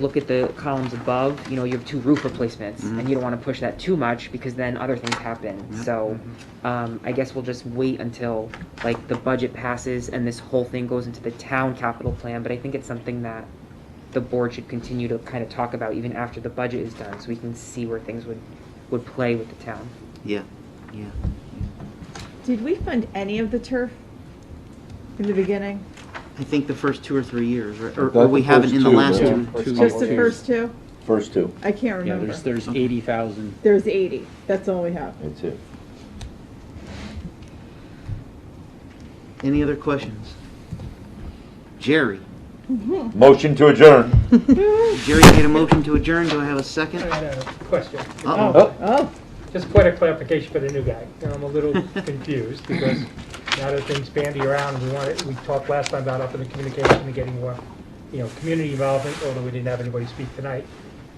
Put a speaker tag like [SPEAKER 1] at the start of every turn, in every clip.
[SPEAKER 1] look at the columns above, you know, you have two roof replacements, and you don't wanna push that too much, because then other things happen, so, um, I guess we'll just wait until, like, the budget passes and this whole thing goes into the town capital plan, but I think it's something that the board should continue to kind of talk about even after the budget is done, so we can see where things would, would play with the town.
[SPEAKER 2] Yeah, yeah.
[SPEAKER 3] Did we fund any of the turf in the beginning?
[SPEAKER 2] I think the first two or three years, right? or,
[SPEAKER 4] That's
[SPEAKER 2] or we
[SPEAKER 4] the
[SPEAKER 2] haven't
[SPEAKER 4] first
[SPEAKER 2] in the
[SPEAKER 4] two,
[SPEAKER 2] last
[SPEAKER 4] yeah.
[SPEAKER 2] two.
[SPEAKER 4] First
[SPEAKER 3] Just the
[SPEAKER 4] couple
[SPEAKER 3] first two?
[SPEAKER 4] First two.
[SPEAKER 3] I can't
[SPEAKER 5] Yeah,
[SPEAKER 3] remember.
[SPEAKER 5] there's, there's eighty thousand.
[SPEAKER 3] There's eighty, that's all we have.
[SPEAKER 4] That's it.
[SPEAKER 2] Any other questions? Jerry.
[SPEAKER 4] Motion to adjourn.
[SPEAKER 2] Jerry made a motion to adjourn. Do I have a second?
[SPEAKER 6] I had a question,
[SPEAKER 2] Uh-oh.
[SPEAKER 4] Oh.
[SPEAKER 3] Oh,
[SPEAKER 6] just point of clarification for the new guy. Now, I'm a little confused because now that things bandy around, we wanted, we talked last time about up in the communication and getting more, you know, community involvement, although we didn't have anybody speak tonight.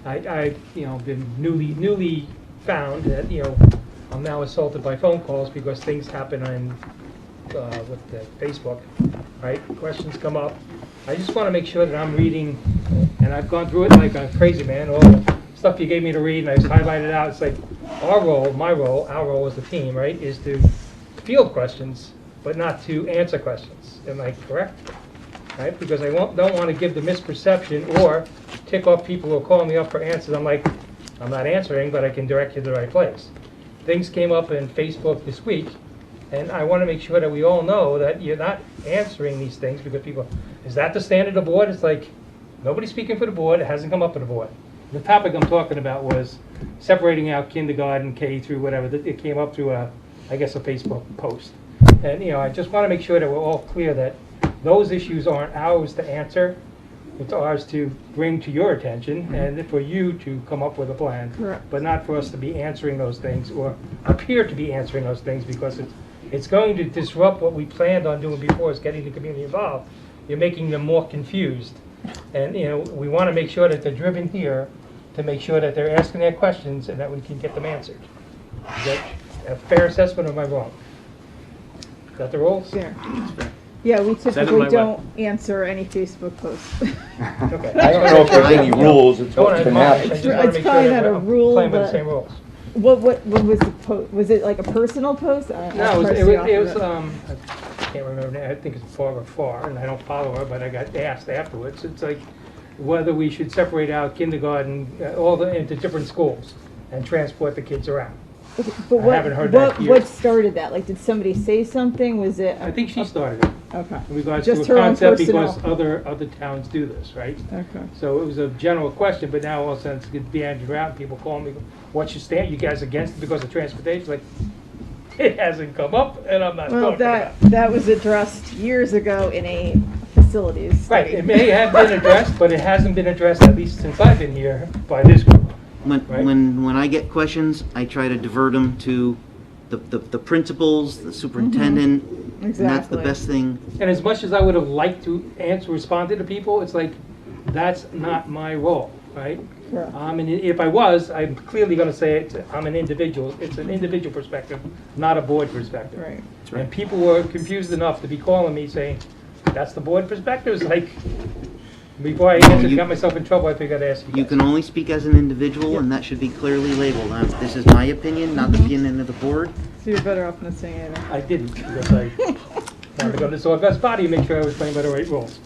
[SPEAKER 6] I, I, you know, been newly, newly found that, you know, I'm now assaulted by phone calls because things happen on, uh, with the Facebook, right? Questions come up. I just want to make sure that I'm reading, and I've gone through it like a crazy man, all the stuff you gave me to read, and I just highlighted it out. It's like, our role, my role, our role as a team, right, is to field questions, but not to answer questions. Am I correct? right? Because I won't, don't want to give the misperception or tick off people who are calling me up for answers. I'm like, I'm not answering, but I can direct you to the right place. Things came up in Facebook this week, and I want to make sure that we all know that you're not answering these things because people, is that the standard of the board? It's like, nobody's speaking for the board, it hasn't come up to the board. The topic I'm talking about was separating out kindergarten, K through whatever, that it came up through a, I guess, a Facebook post. And, you know, I just want to make sure that we're all clear that those issues aren't ours to answer. It's ours to bring to your attention and for you to come up with a plan.
[SPEAKER 3] Correct.
[SPEAKER 6] But not for us to be answering those things or appear to be answering those things because it's, it's going to disrupt what we planned on doing before is getting the community involved. You're making them more confused. And, you know, we want to make sure that they're driven here to make sure that they're asking their questions and that we can get them answered. Is that a fair assessment or am I wrong? Is that the rules?
[SPEAKER 3] there. Yeah, we typically
[SPEAKER 5] my
[SPEAKER 3] don't answer any Facebook posts.
[SPEAKER 6] Okay.
[SPEAKER 4] I don't know if there's any rules, it's
[SPEAKER 6] Don't
[SPEAKER 4] what can
[SPEAKER 6] admonish, I
[SPEAKER 4] happen.
[SPEAKER 6] just want to
[SPEAKER 3] It's
[SPEAKER 6] make
[SPEAKER 3] probably
[SPEAKER 6] sure that
[SPEAKER 3] not a
[SPEAKER 6] we're
[SPEAKER 3] rule,
[SPEAKER 6] playing by the
[SPEAKER 3] but-
[SPEAKER 6] same rules.
[SPEAKER 3] What, what, what was the po, was it like a personal post? I- I
[SPEAKER 6] No, it was,
[SPEAKER 3] crossed
[SPEAKER 6] it
[SPEAKER 3] you
[SPEAKER 6] was,
[SPEAKER 3] off
[SPEAKER 6] it
[SPEAKER 3] of
[SPEAKER 6] was, um, I can't remember now, I think it's Barbara Farr, and I don't follow her, but I got asked afterwards, it's like, whether we should separate out kindergarten, uh, all the, into different schools, and transport the kids around.
[SPEAKER 3] But
[SPEAKER 6] I
[SPEAKER 3] what-
[SPEAKER 6] haven't heard that
[SPEAKER 3] what-
[SPEAKER 6] yet.
[SPEAKER 3] What started that? Like, did somebody say something? Was it?
[SPEAKER 6] I think she started it,
[SPEAKER 3] Okay,
[SPEAKER 6] in regards to
[SPEAKER 3] Just
[SPEAKER 6] a
[SPEAKER 3] her own
[SPEAKER 6] concept, because
[SPEAKER 3] personnel.
[SPEAKER 6] other, other towns do this, right?
[SPEAKER 3] okay.
[SPEAKER 6] So it was a general question, but now all of a sudden it's getting bandied around, people call me, what's your stand, you guys against it because of transportation, like, it hasn't come up, and I'm not talking
[SPEAKER 3] Well,
[SPEAKER 6] about it.
[SPEAKER 3] that, that was addressed years ago in a facilities
[SPEAKER 6] Right,
[SPEAKER 3] study.
[SPEAKER 6] it may have been addressed, but it hasn't been addressed, at least since I've been here, by this group.
[SPEAKER 2] When,
[SPEAKER 6] Right.
[SPEAKER 2] when, when I get questions, I try to divert them to the, the, the principals, the superintendent. And that's the
[SPEAKER 3] Exactly.
[SPEAKER 2] best thing.
[SPEAKER 6] And as much as I would have liked to answer, respond to the people, it's like, that's not my role, right?
[SPEAKER 3] Correct.
[SPEAKER 6] Um, and if I was, I'm clearly gonna say it's, I'm an individual, it's an individual perspective, not a board perspective.
[SPEAKER 3] Right.
[SPEAKER 2] right.
[SPEAKER 6] And people were confused enough to be calling me saying, that's the board perspective, it's like, before I answered,
[SPEAKER 2] you-
[SPEAKER 6] got myself in trouble, I figured I'd ask you
[SPEAKER 2] You
[SPEAKER 6] guys.
[SPEAKER 2] can only speak as an individual and that should be clearly labeled. Uh, This is my opinion, not the opinion of the board.
[SPEAKER 3] So you're better off not saying anything.
[SPEAKER 6] I didn't, because I wanted to go to the Soil Best Body and make sure I was playing by the right rules.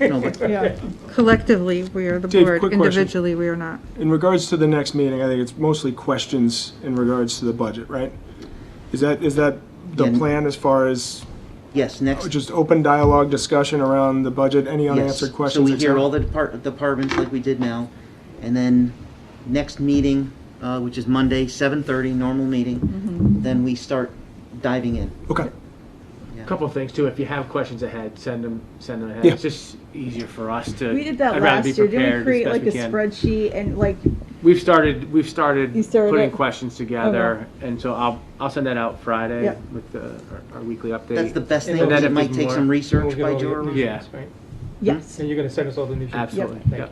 [SPEAKER 2] No, but
[SPEAKER 3] Yeah.
[SPEAKER 7] Collectively, we are the
[SPEAKER 8] Dave,
[SPEAKER 7] board.
[SPEAKER 8] quick question.
[SPEAKER 7] Individually, we are not.
[SPEAKER 8] In regards to the next meeting, I think it's mostly questions in regards to the budget, right? Is that, is that the
[SPEAKER 2] Yeah.
[SPEAKER 8] plan as far as
[SPEAKER 2] yes, next.
[SPEAKER 8] just open dialogue discussion around the budget, any
[SPEAKER 2] Yes.
[SPEAKER 8] unanswered questions?
[SPEAKER 2] So we hear
[SPEAKER 8] etc.?
[SPEAKER 2] all the depart- departments like we did now, and then next meeting, uh, which is Monday, seven thirty, normal meeting, then we start diving in.
[SPEAKER 8] Okay,
[SPEAKER 5] Couple of things too, if you have questions ahead, send them, send them ahead.
[SPEAKER 8] Yeah.
[SPEAKER 5] It's just easier for us to.
[SPEAKER 3] We did that
[SPEAKER 5] I'd rather be
[SPEAKER 3] last year. Didn't we
[SPEAKER 5] prepared
[SPEAKER 3] create
[SPEAKER 5] as
[SPEAKER 3] like a
[SPEAKER 5] best we can. Hmm?
[SPEAKER 3] spreadsheet and like,
[SPEAKER 5] We've started, we've started
[SPEAKER 3] You started
[SPEAKER 5] putting
[SPEAKER 3] it?
[SPEAKER 5] questions together, and so I'll, I'll send that out Friday
[SPEAKER 3] Yep.
[SPEAKER 5] with the, our- our weekly update.
[SPEAKER 2] That's the best thing,
[SPEAKER 6] And
[SPEAKER 2] because
[SPEAKER 5] then
[SPEAKER 2] it
[SPEAKER 5] if
[SPEAKER 2] might
[SPEAKER 5] there's
[SPEAKER 2] take
[SPEAKER 6] more,
[SPEAKER 2] some
[SPEAKER 6] We'll
[SPEAKER 2] research
[SPEAKER 6] get
[SPEAKER 2] by
[SPEAKER 6] all the
[SPEAKER 2] Jordan.
[SPEAKER 6] new
[SPEAKER 5] Yeah.
[SPEAKER 6] sheets, right?
[SPEAKER 3] yes.
[SPEAKER 6] And you're gonna send us all the new sheets?
[SPEAKER 5] Absolutely, yeah.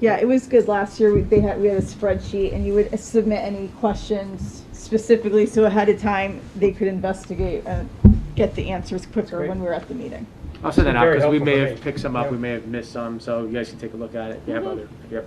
[SPEAKER 3] Yeah, it was good last year. We, they had, we had a spreadsheet and you would submit any questions specifically so ahead of time they could investigate and get the answers quicker
[SPEAKER 6] great.
[SPEAKER 3] when we were at the meeting.
[SPEAKER 5] I'll send that out
[SPEAKER 6] Very
[SPEAKER 5] because we
[SPEAKER 6] helpful
[SPEAKER 5] may
[SPEAKER 6] for
[SPEAKER 5] have
[SPEAKER 6] me.
[SPEAKER 5] picked some up,
[SPEAKER 6] Yeah.
[SPEAKER 3] Mm-hmm.
[SPEAKER 5] we may have missed some, so you guys can take a look at it if you have other, if you have